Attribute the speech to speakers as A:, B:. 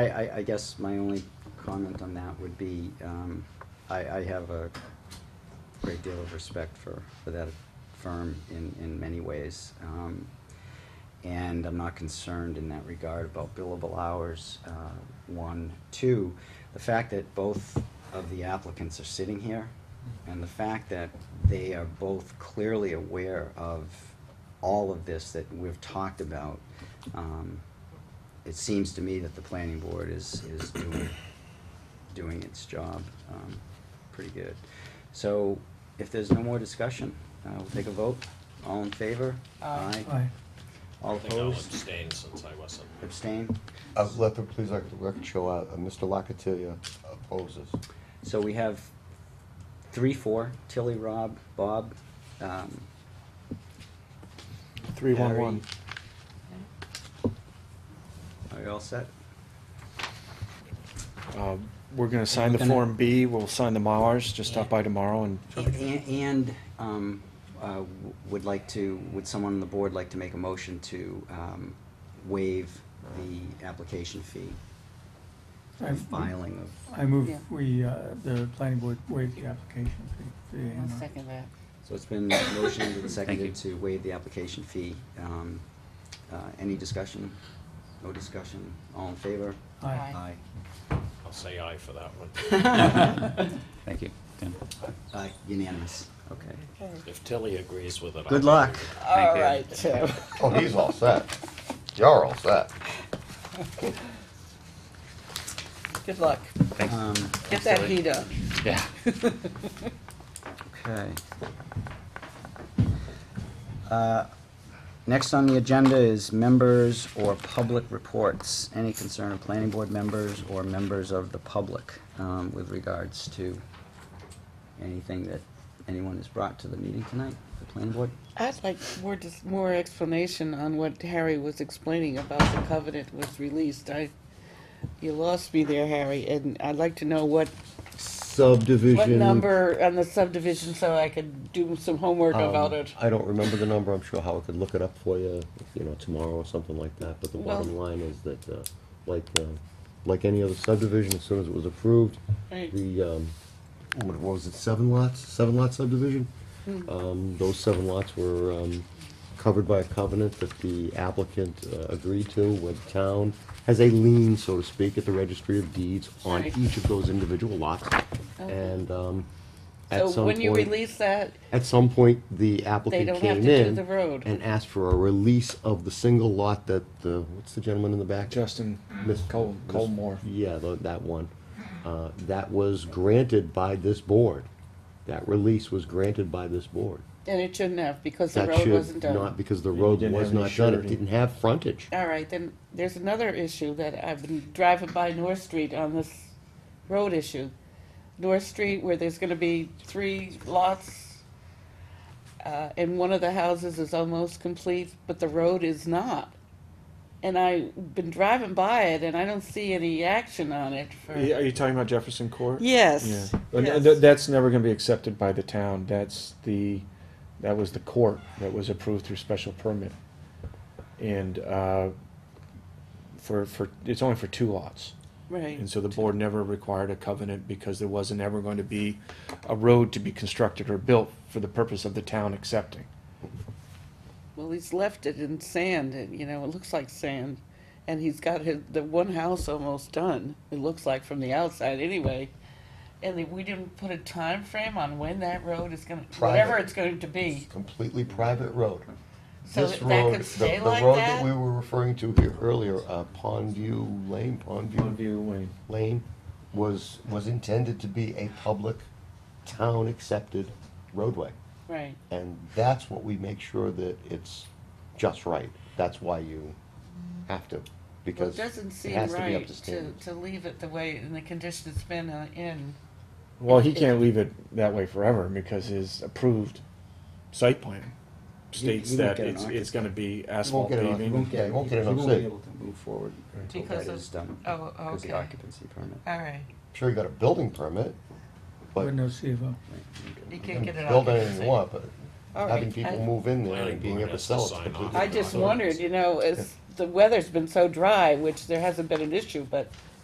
A: I, I, I guess my only comment on that would be, um, I, I have a great deal of respect for, for that firm in, in many ways. Um, and I'm not concerned in that regard about billable hours, uh, one. Two, the fact that both of the applicants are sitting here and the fact that they are both clearly aware of all of this that we've talked about, um, it seems to me that the planning board is, is doing, doing its job, um, pretty good. So if there's no more discussion, uh, we'll take a vote. All in favor?
B: Aye.
A: Aye.
C: Aye.
A: All
D: I think I'll
A: opposed?
D: abstain since I wasn't.
A: Abstain?
E: Uh, let the, please, let the record show, uh, uh, Mr. Locatilia opposes.
A: So we have three, four, Tilly, Rob, Bob, um,
C: Three one one.
A: are you all set?
C: Uh, We're gonna sign the
A: Gonna-
C: Form B, we'll sign the Mars, just stop by tomorrow and,
A: And, and, um, uh, w- would like to, would someone on the board like to make a motion to, um, waive the application fee?
F: I-
A: and Filing of,
F: I move
B: Yeah.
F: we, uh, the planning board waive the application fee. for the
B: I'll
F: A&R.
B: second that.
A: so it's been motioned and seconded to waive the application fee. Um, uh, any discussion? No discussion? All in favor?
F: Aye.
B: Aye.
D: I'll say aye for that one.
G: Thank you, Tim.
A: Aye, unanimous, okay.
D: If Tilly agrees with it. I
A: Good luck.
D: agree with it.
B: All
G: you.
B: right, Tim.
E: Oh, he's all set. You're all set.
B: Good luck.
G: Thanks.
A: Um,
B: Get that heat up.
G: Yeah.
A: Okay. Uh, Next on the agenda is members or public reports. Any concern of planning board members or members of the public um, with regards to anything that anyone has brought to the meeting tonight, the planning board?
B: I'd like more, just more explanation on what Harry was explaining about the covenant was released. I, you lost me there, Harry, and I'd like to know what,
E: Subdivision.
B: what number on the subdivision so I could do some homework
E: um,
B: about it.
E: I don't remember the number, I'm sure Howard could look it up for you, you know, tomorrow or something like that, but the
B: Well-
E: bottom line is that, uh, like, uh, like any other subdivision, as soon as it was approved,
B: Right.
E: the, um, what was it, seven lots, seven lot subdivision?
B: Hmm.
E: Um, those seven lots were, um, covered by a covenant that the applicant uh, agreed to, where the town has a lien, so to speak, at the registry of deeds on
B: Right.
E: each of those individual lots.
B: Okay.
E: And, um, at some point.
B: So when you release that,
E: At some point, the
B: They
E: applicant
B: don't have
E: came
B: to do
E: in
B: the road.
E: and asked for a release of the single lot that the, what's the gentleman in the back?
C: Justin
E: Miss-
C: Col-
E: Miss-
C: Colmore.
E: Yeah, tho- that one. Uh, That was granted by this board. That release was granted by this board.
B: and it shouldn't have because the
E: That
B: road
E: should
B: wasn't done.
E: Not because the
C: You
E: road
C: didn't
E: was
C: have any
E: not done, it
C: surety.
E: didn't have frontage.
B: All right, then there's another issue that I've been driving by North Street on this road issue. North Street where there's gonna be three lots. Uh, and one of the houses is almost complete, but the road is not. And I've been driving by it and I don't see any action on it for.
C: are you are you talking about Jefferson Court? Yeah,
B: Yes.
C: And
B: yes.
C: th- that's never gonna be accepted by the town, that's the, that was the court that was approved through special permit. And, uh, for, for, it's only for two lots.
B: Right,
C: And so the board never required a covenant because there wasn't ever going to be a road to be constructed or built for the purpose of the town accepting.
B: well, he's left it in sand, and, you know, it looks like sand. And he's got his, the one house almost done, it looks like from the outside anyway. And they- we didn't put a time frame on when that road is gonna, whatever
E: Private.
B: it's going to be.
E: Completely private road.
B: So
E: This
B: that that
E: road,
B: could
E: the-
B: stay
E: the
B: like
E: road that we
B: that?
E: were referring to here earlier, uh, Pondview Lane, Pondview
C: Longview Lane.
E: Lane was, was intended to be a public, town-accepted roadway.
B: Right,
E: And that's what we make sure that it's just right. That's why you have to,
B: well,
E: because
B: it doesn't
E: it
B: seem
E: has to be up
B: right
E: to
B: to,
E: standards.
B: to leave it the way, in the condition it's been uh, in.
C: Well, he can't leave it that way forever because his approved site plan states
A: he won't
C: that
A: get an
C: it's, it's gonna be
E: You won't
C: asphalt
E: get it, on- you won't
C: paving.
E: get, you won't get it
A: He
E: on
A: won't be
E: site.
A: able to move forward until
B: Because
A: that
B: of-
A: is done.
B: Oh,
A: Because the
B: okay. Uh,
A: occupancy permit.
B: All right,
E: Sure, you got a building permit, but
F: With no CFO.
B: you
E: you
B: can't
E: can
B: get it
E: build anything you
B: all.
E: want, but
B: All
E: having
B: right,
E: people
B: I-
E: move in there
D: Planning
E: and being
D: board
E: able to
D: has to
E: sell it's
D: sign
E: completely.
D: off.
B: I
E: different.
B: just wondered, you know, as the weather's been so dry, which there hasn't been an issue, but